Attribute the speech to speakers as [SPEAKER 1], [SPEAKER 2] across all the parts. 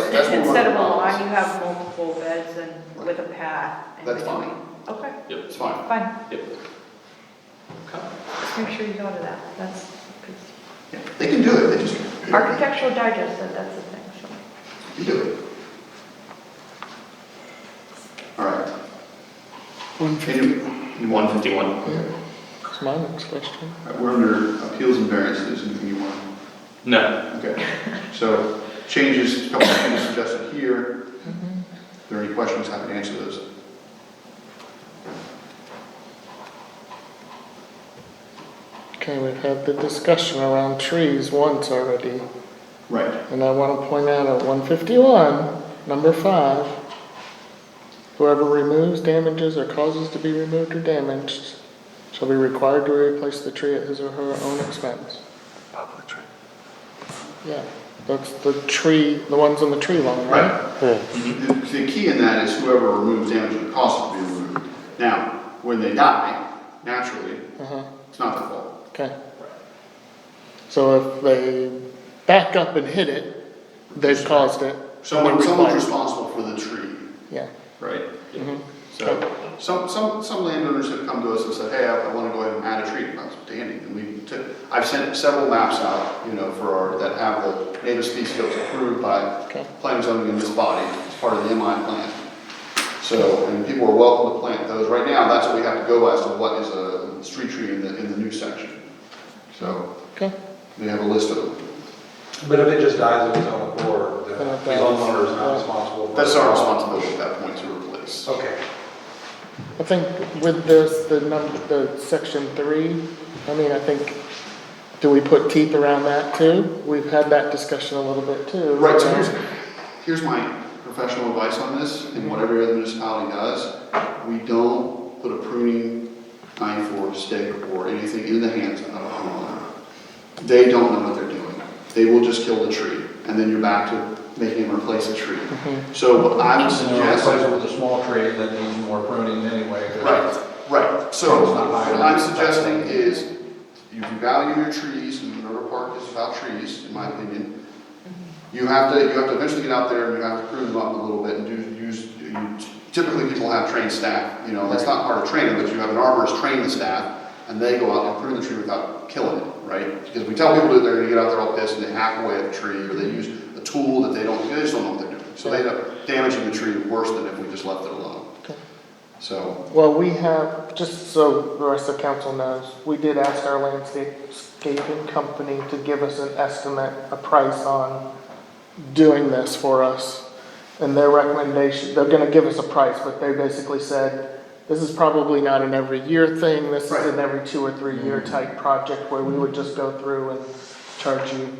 [SPEAKER 1] Instead of
[SPEAKER 2] Right.
[SPEAKER 1] a lawn, you have multiple beds and with a path in
[SPEAKER 2] That's fine.
[SPEAKER 1] between. Okay,
[SPEAKER 3] Yep,
[SPEAKER 2] It's fine.
[SPEAKER 1] fine,
[SPEAKER 3] yep. Okay.
[SPEAKER 1] just make sure you go to that, that's, 'cause
[SPEAKER 2] They can do it, they just.
[SPEAKER 1] Architectural Digest said that's the thing, so.
[SPEAKER 2] You do it. All right.
[SPEAKER 4] One
[SPEAKER 2] One
[SPEAKER 3] Fifty-one.
[SPEAKER 4] That's my next question.
[SPEAKER 2] We're under appeals and variances, anything you want?
[SPEAKER 3] No,
[SPEAKER 2] Okay, so changes, a couple of things suggested here.
[SPEAKER 1] Mm-hmm.
[SPEAKER 2] If there are any questions, happy to answer those.
[SPEAKER 4] Okay, we've had the discussion around trees once already,
[SPEAKER 2] Right.
[SPEAKER 4] and I want to point out at one fifty-one, number five, whoever removes, damages, or causes to be removed or damaged shall be required to replace the tree at his or her own expense. Yeah, that's the tree, the ones on the tree line, right?
[SPEAKER 2] Right. Mm-hmm. The, the key in that is whoever removes damage and causes to be removed. Now, when they die, naturally,
[SPEAKER 4] Uh-huh,
[SPEAKER 2] it's not their fault.
[SPEAKER 4] okay. So if they back up and hit it, they've caused it.
[SPEAKER 2] Someone, someone's
[SPEAKER 4] Required.
[SPEAKER 2] responsible for the tree,
[SPEAKER 4] Yeah.
[SPEAKER 2] right?
[SPEAKER 4] mhm.
[SPEAKER 2] So, some, some, some landowners have come to us and said, hey, I, I wanna go ahead and add a tree, and that's standing, and we took, I've sent several maps out, you know, for our, that have the native species scopes approved by
[SPEAKER 4] Okay.
[SPEAKER 2] planning and zoning in this body, as part of the MI plan. So, and people are welcome to plant those, right now, that's what we have to go as to what is a street tree in the, in the new section. So,
[SPEAKER 4] Okay,
[SPEAKER 2] they have a list of them,
[SPEAKER 5] But if it just dies of its own accord, the
[SPEAKER 4] Then it
[SPEAKER 5] the
[SPEAKER 4] dies.
[SPEAKER 5] homeowner is not responsible for it.
[SPEAKER 2] that's our responsibility at that point to replace.
[SPEAKER 5] Okay.
[SPEAKER 4] I think with this, the number, the section three, I mean, I think, do we put teeth around that too? We've had that discussion a little bit too.
[SPEAKER 2] Right, so here's, here's my professional advice on this, and what every other municipality does, we don't put a pruning knife or stick or anything in the hands of a homeowner. They don't know what they're doing, they will just kill the tree, and then you're back to making them replace the tree. So what I would
[SPEAKER 5] And then
[SPEAKER 2] suggest.
[SPEAKER 5] replace it with a small tree that needs more pruning anyway. 'cause-
[SPEAKER 2] Right, right, so
[SPEAKER 5] It's not
[SPEAKER 2] what
[SPEAKER 5] violent.
[SPEAKER 2] I'm suggesting is, you value your trees, and Minerva Park is about trees, in my opinion. You have to, you have to eventually get out there and you have to prune them up a little bit and do, use, you- typically people have trained staff, you know, that's not part of training, but you have an arborist train the staff, and they go out and prune the tree without killing it, right? Because we tell people that they're gonna get out there all pissed and they hack away at the tree, or they use a tool that they don't, they just don't know what they're doing. So they end up damaging the tree worse than if we just left it alone.
[SPEAKER 4] Okay.
[SPEAKER 2] So,
[SPEAKER 4] Well, we have, just so the rest of council knows, we did ask our landscaping company to give us an estimate, a price on doing this for us. And their recommendation, they're gonna give us a price, but they basically said, this is probably not an every year thing, this is an every two or three year type project where we would just go through and charge you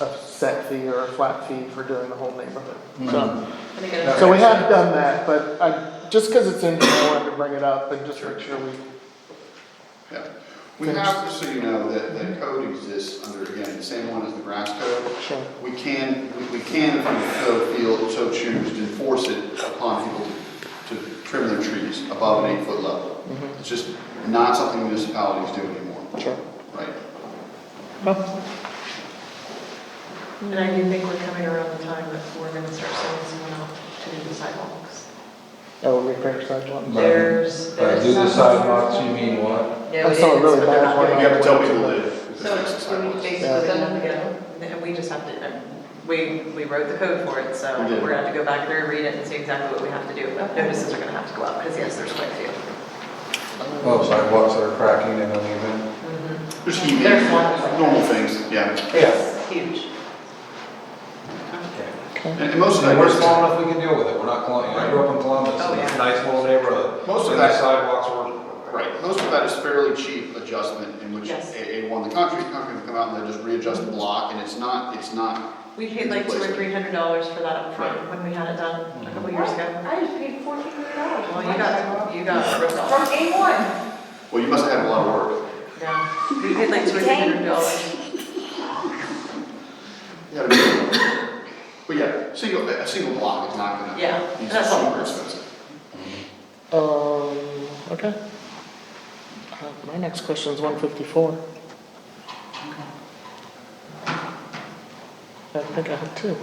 [SPEAKER 4] a set fee or a flat fee for doing the whole neighborhood, so. So we have done that, but I, just because it's in here, I wanted to bring it up and just make sure we,
[SPEAKER 2] Yeah, we have, so you know, that, that code exists under, again, the same one as the grass code.
[SPEAKER 4] sure,
[SPEAKER 2] We can, we- we can, if we so feel, so choose, to enforce it upon people to trim their trees above an eight-foot level. It's just not something municipalities do anymore,
[SPEAKER 4] sure.
[SPEAKER 2] right?
[SPEAKER 6] And I do think we're coming around the time that we're gonna start sending someone out to do the sidewalks.
[SPEAKER 4] Oh, repair sidewalk.
[SPEAKER 6] There's,
[SPEAKER 5] But
[SPEAKER 6] there's.
[SPEAKER 5] do the
[SPEAKER 6] some-
[SPEAKER 5] sidewalks, you mean what?
[SPEAKER 6] No,
[SPEAKER 4] I
[SPEAKER 6] it is,
[SPEAKER 4] saw a really
[SPEAKER 6] but they're
[SPEAKER 4] bad
[SPEAKER 6] not
[SPEAKER 4] one.
[SPEAKER 6] doing
[SPEAKER 2] You
[SPEAKER 6] it.
[SPEAKER 2] have to tell people that.
[SPEAKER 6] So it's, we basically done them together, and we just have to, we, we wrote the code for it, so
[SPEAKER 2] We did.
[SPEAKER 6] we're gonna have to go back through, read it, and see exactly what we have to do. Notices are gonna have to go out, because yes, there's quite a few.
[SPEAKER 5] Well, sidewalks that are cracking and uneven.
[SPEAKER 2] There's heaving,
[SPEAKER 6] There's one.
[SPEAKER 2] normal things, yeah.
[SPEAKER 6] It's huge.
[SPEAKER 4] Oh.
[SPEAKER 2] And and most of that.
[SPEAKER 5] And we're small enough, we can deal with it, we're not, Colum- I grew up in Columbus,
[SPEAKER 6] Oh,
[SPEAKER 5] and it's a
[SPEAKER 6] yeah.
[SPEAKER 5] nice little neighborhood.
[SPEAKER 2] Most of
[SPEAKER 5] And
[SPEAKER 2] that-
[SPEAKER 5] the sidewalks were.
[SPEAKER 2] Right, most of that is fairly cheap adjustment in which
[SPEAKER 6] Yes.
[SPEAKER 2] A, A one, the concrete, concrete will come out and they just readjust the block and it's not, it's not,
[SPEAKER 6] We paid like two or three hundred dollars for that up front when we had it done a couple
[SPEAKER 1] Mm-hmm.
[SPEAKER 6] years ago.
[SPEAKER 1] I just paid fourteen hundred dollars.
[SPEAKER 6] Well, you got, you got ripped
[SPEAKER 1] From
[SPEAKER 6] off.
[SPEAKER 1] day one.
[SPEAKER 2] well, you must have had a lot of work.
[SPEAKER 6] Yeah, we paid like two or three hundred dollars.
[SPEAKER 2] Yeah, but- But yeah, single, a single block is not gonna.
[SPEAKER 6] Yeah,
[SPEAKER 2] be
[SPEAKER 6] that's all.
[SPEAKER 2] Super expensive.
[SPEAKER 4] Um, okay. Uh, My next question's one fifty-four. I think I have two.